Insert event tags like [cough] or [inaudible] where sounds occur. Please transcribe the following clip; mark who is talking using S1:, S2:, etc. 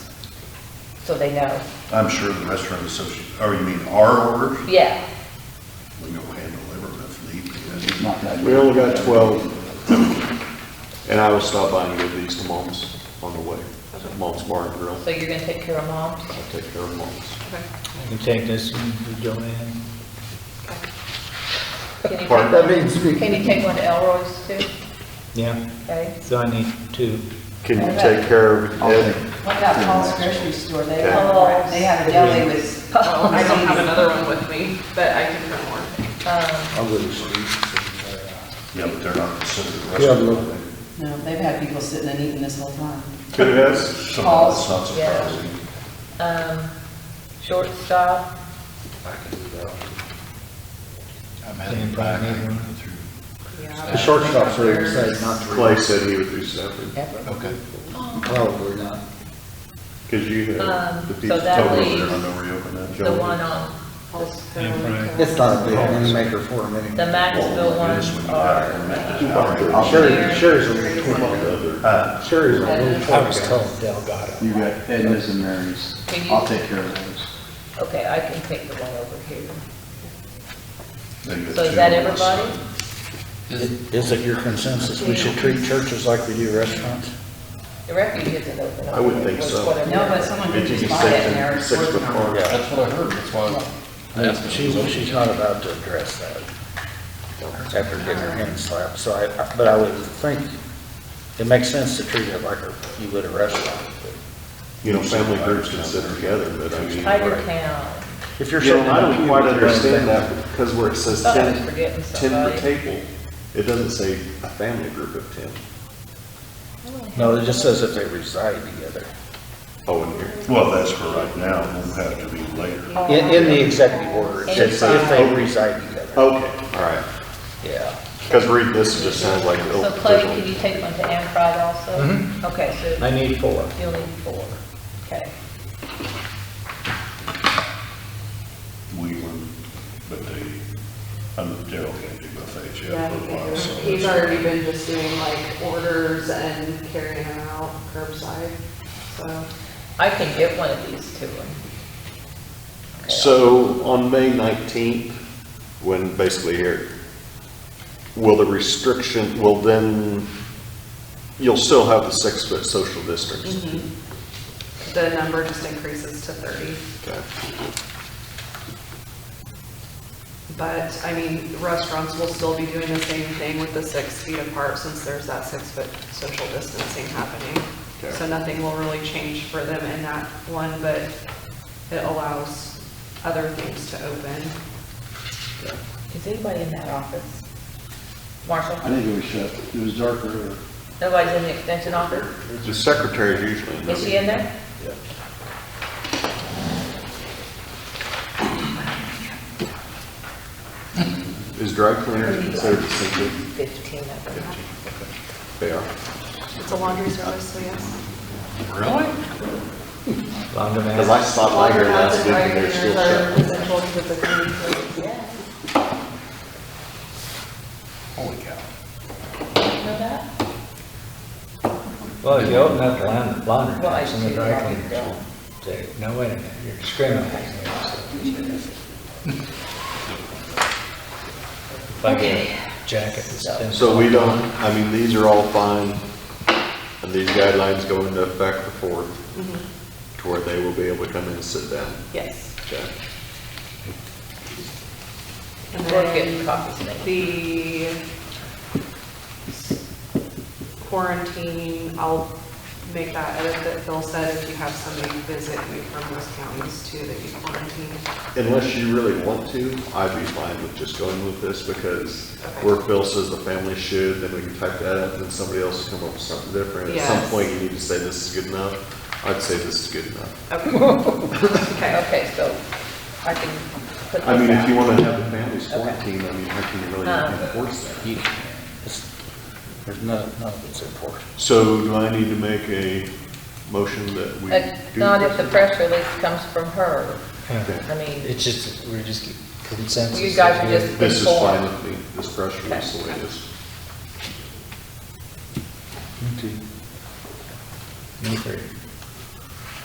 S1: so they know.
S2: I'm sure the restaurant association, or you mean our orders?
S1: Yeah,
S2: We don't handle everything if need be.
S3: Not that
S4: We only got 12. And I will stop by and give these to Mom's on the way. Mom's Bar and Grill.
S1: so you're gonna take care of mom?
S4: I'll take care of Mom's.
S1: Okay.
S5: I can take this and do Joanne.
S1: Can you take
S4: Pardon?
S1: one-
S3: means we-
S1: Can you take one to Elroy's too?
S5: Yeah,
S1: Okay.
S5: so I need two.
S4: Can you take care of
S3: I'll take-
S4: Ed?
S6: What about Paul's grocery store? They
S4: Yeah.
S6: have, they have a deli
S7: [laughs]
S6: with.
S7: Well, Oh, I don't
S1: [laughs]
S7: have another one with me, but I can print more.
S3: I'll go to Steve's. and, uh,
S2: Yeah, but they're not considered a
S3: Yeah,
S2: restaurant.
S3: look.
S6: No, they've had people sitting and eating this whole time.
S4: Could it ask?
S2: So that's not
S1: Yeah.
S2: surprising.
S1: Um, shortstop,
S3: I can do that. I'm
S5: Can't probably need one.
S3: The short stops are the same, not three.
S4: Clay said he would do seven.
S1: yep.
S3: Okay. Probably not.
S4: Because you
S1: Um,
S4: have the
S1: so
S4: pizza.
S1: that
S2: Tell them
S1: leaves-
S2: they're not gonna reopen that.
S1: the one on,
S3: It's not a big money maker for him
S1: the
S3: anyway.
S1: Maxville
S2: This
S1: ones
S2: would be
S1: are,
S2: better than
S4: I'll
S2: that.
S4: share it. Sherry's a little
S2: Uh,
S3: Sherry's a little
S5: I was
S3: short
S5: told Delgado.
S8: You got Edna's and Mary's.
S1: Can you-
S8: I'll take care of those.
S1: okay, I can take the one over here.
S2: they get
S1: So
S2: two
S1: is that
S2: on this
S1: everybody?
S2: side.
S5: Is it your consensus we should treat churches like we do restaurants?
S1: The refuge isn't open.
S4: I would think so.
S1: Whatever.
S6: No, but someone could
S4: It's
S6: just
S4: just
S6: buy it and
S4: a
S6: they're
S4: six, six foot
S6: working on
S4: car.
S6: it.
S3: That's what I heard, that's why.
S5: She, she's not about to address that after getting her hand slapped, so I, I- but I would think it makes sense to treat it like a- you would a restaurant.
S4: You know, family groups can sit together, but I mean.
S1: Tiger Town,
S5: If you're
S4: You
S5: sitting
S4: know,
S5: in
S4: I
S5: a
S4: don't
S5: queue
S4: quite
S5: with your own
S4: understand
S5: family-
S4: that, because where it says
S1: Thought I was
S4: ten,
S1: forgetting
S4: ten per
S1: somebody.
S4: table, it doesn't say a family group of ten.
S5: No, it just says if they reside together.
S4: Oh, in here.
S2: Well, that's for right now, it won't have to be later.
S5: In, in the executive order, it says if they reside together,
S4: Okay, all right.
S5: yeah.
S4: Because read this, it just sounds like. oh,
S1: so Clay,
S4: there's a-
S1: can you take one to Anne Fried also?
S5: Mm-hmm.
S1: Okay, so
S5: I need four.
S1: you'll need four, okay.
S2: Wheeling, but they, I'm, they're okay to do buffets, yeah,
S7: Yeah,
S2: for a while, so.
S7: He's already been just doing like orders and carrying them out curbside, so.
S1: I can get one of these to him.
S4: So on May 19th, when basically here, will the restriction, will then, you'll still have the six-foot social distance?
S6: Mm-hmm.
S7: The number just increases to 30.
S1: Mm-hmm.
S4: Okay.
S7: But, I mean, restaurants will still be doing the same thing with the six feet apart since there's that six-foot social distancing happening.
S4: Okay.
S7: So nothing will really change for them in that one, but it allows other things to open.
S1: Is anybody in that office? Marshall?
S8: I think it was shut. It was dark earlier.
S1: Nobody's in the extension office?
S4: The secretary is usually in
S1: Is she in there?
S4: Is dry cleaners considered a single?
S1: Fifteen of them.
S4: They are.
S7: It's a laundry service, so yes.
S4: Because I stopped by here last week and they're still shut.
S1: Yeah. Holy cow. You know that?
S5: Well, if you open up the laun- laundry
S1: Well, I
S5: house and the
S1: do,
S5: dry
S1: I do.
S5: cleaners, will say, no, wait a minute, you're discriminating. against them." Like a jacket that's.
S4: So we don't, I mean, these are all fine, and these guidelines go into effect the fourth,
S1: Mm-hmm.
S4: to where they will be able to come in and sit down.
S7: Yes.
S4: Okay.
S7: And
S1: We're
S7: then-
S1: getting copies made.
S7: the quarantine, I'll make that edit that Phil said, if you have somebody visit you from those counties too, that you quarantine.
S4: Unless you really want to, I'd be fine with just going with this, because where Phil says the family should, then we can type that up, and then somebody else will come up with something different. At some
S7: Yes.
S4: point, you need to say this is good enough, I'd say this is good enough.
S7: Okay,
S1: Okay, so I can put this
S4: I mean, if you
S1: out.
S4: want to have the families quarantined, I mean, how can you really
S1: Um,
S4: enforce that?
S5: There's none, none of it's important.
S4: So do I need to make a motion that we
S1: Uh,
S4: do?
S1: Not if
S4: this?
S1: the press release comes from her.
S5: Yeah.
S1: I mean,
S5: It's just, we're just consensus.
S1: You guys are
S5: that we-
S1: just-
S4: This is
S1: Before.
S4: fine with me, this press release the way it is.
S5: Me three.